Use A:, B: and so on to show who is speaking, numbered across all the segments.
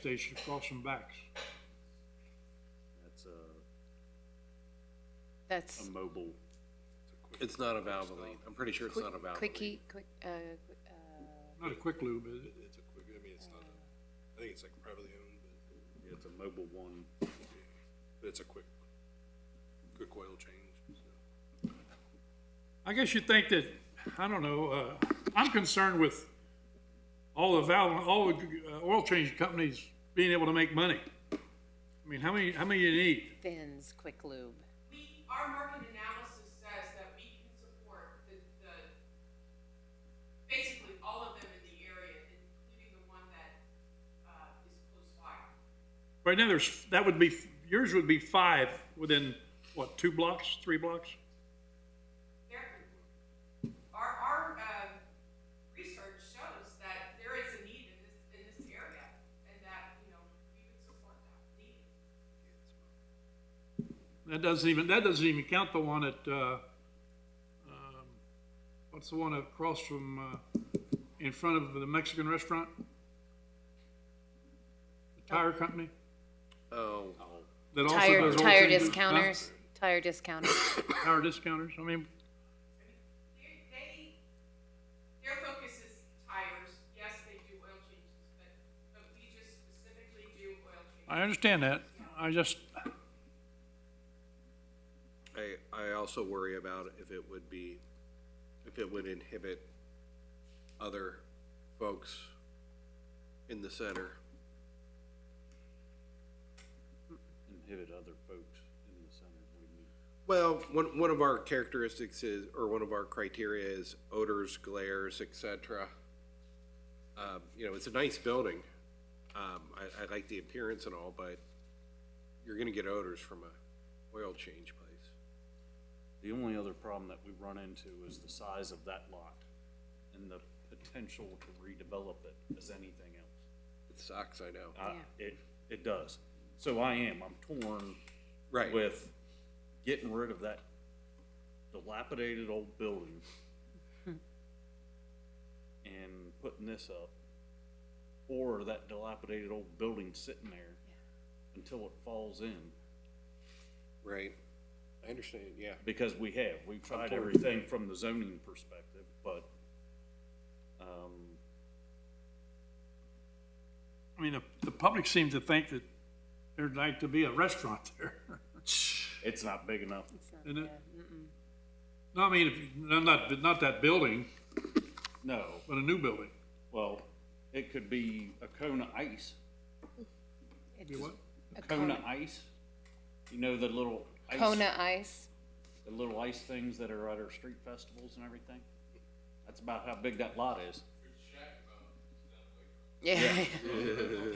A: station across from Bax.
B: That's a,
C: Um,
B: a
D: That's
B: mobile.
C: It's not a Valvoline. I'm pretty sure it's
D: quick,
C: not a Valvoline.
D: quickie, quick, uh, qu- uh,
A: Not a quick lube, is it?
E: It's a quick, I mean, it's not, a- I think it's like privately owned, but,
B: It's a mobile one.
E: but it's a quick, quick oil change, so.
A: I guess you think that, I don't know, uh, I'm concerned with all the valve, all the uh, oil change companies being able to make money. I mean, how many, how many you need?
D: Finn's Quick Lube.
F: we, our market analysis says that we can support the, the, basically all of them in the area, including the one that, uh, is close by.
A: Right now, there's, that would be, yours would be five within, what, two blocks, three blocks?
F: There, our, our, uh, research shows that there is a need in this, in this area, and that, you know, we would support that need.
A: That doesn't even, that doesn't even count the one at, uh, um, what's the one across from, uh, in front of the Mexican restaurant? The tire company?
C: Oh,
A: that also
D: Tire,
A: does oil
D: tire
A: changes, huh?
D: discounters, tire discounters.
A: Tire discounters, I mean,
F: They, they, their focus is tires, yes, they do oil changes, but, but we just specifically do oil changes.
A: I understand that, I just,
C: I, I also worry about if it would be, if it would inhibit other folks in the center.
B: Inhibit other folks in the center. We need
C: Well, one, one of our characteristics is, or one of our criteria is odors, glares, et cetera. Um, you know, it's a nice building. Um, I, I like the appearance and all, but you're gonna get odors from a oil change place.
B: The only other problem that we run into is the size of that lot and the potential to redevelop it as anything else.
C: It sucks, I know.
B: I-
D: Yeah.
B: It, it does. So I am, I'm torn
C: Right.
B: with getting rid of that dilapidated old building and putting this up, or that dilapidated old building sitting there until it falls in,
C: Right. I understand, yeah.
B: because we have, we've tried everything from the zoning perspective, but, um,
A: I mean, the, the public seems to think that there'd like to be a restaurant there.
B: it's not big enough.
A: And it- No, I mean, if, you- no, not, not that building,
B: No,
A: but a new building.
B: well, it could be a Kona Ice,
A: Be what?
D: A
B: Kona
D: Kona,
B: Ice, you know, the little ice.
D: Kona Ice.
B: the little ice things that are at our street festivals and everything. That's about how big that lot is.
D: Yeah.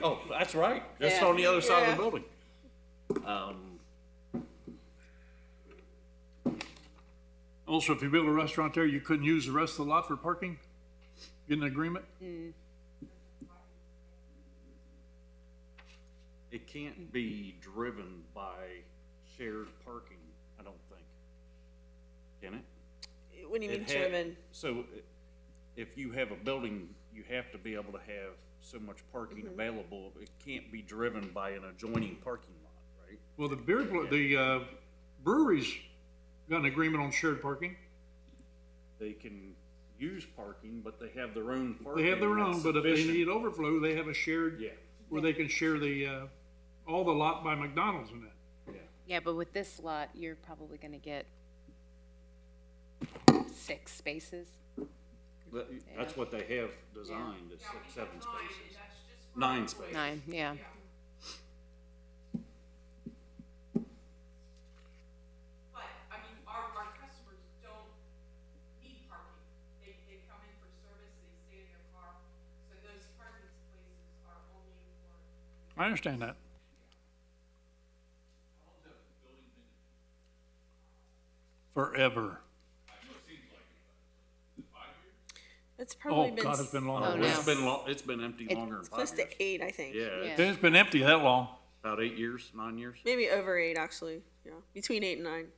B: Oh, that's right. It's
D: Yeah.
B: on the other side of
D: Yeah.
B: the building. Um,
A: Also, if you build a restaurant there, you couldn't use the rest of the lot for parking? Get an agreement?
B: it can't be driven by shared parking, I don't think. Can it?
G: What do you
B: It
G: mean
B: ha-
G: German?
B: So i- if you have a building, you have to be able to have so much parking available. It can't be driven by an adjoining parking lot, right?
A: Well, the beer, pl- the, uh, breweries got an agreement on shared parking.
B: They can use parking, but they have their own parking.
A: They have their
B: that's
A: own, but if they
B: sufficient.
A: need overflow, they have a shared.
B: Yeah,
A: where they can share the, uh, all the lot by McDonald's in it.
B: yeah.
D: Yeah, but with this lot, you're probably gonna get six spaces.
B: That- That's what they have designed, is
F: Yeah, we
B: six,
F: have
B: seven
F: nine, and
B: spaces.
F: that's just for
B: Nine
F: employees.
B: spaces.
D: Nine, yeah.
F: Yeah. But, I mean, our, our customers don't need parking. They, they come in for service, they stay in their car, so those parking spaces are only for
A: I understand that. Forever.
G: It's probably
A: Oh,
G: been.
A: God, it's been
G: s-
A: long.
D: Oh,
B: It's
D: no.
B: been lo, it's been empty
D: It's
B: longer than
G: It's
B: five
G: close to
B: years.
G: eight, I think.
B: Yeah,
D: Yeah.
A: It's been empty that long.
B: about eight years, nine years.
G: Maybe over eight, actually. Yeah, between eight and nine.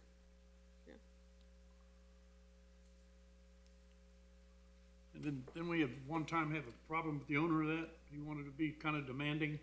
A: And then, then we have, one time have a problem with the owner of that. He wanted to be kind of demanding.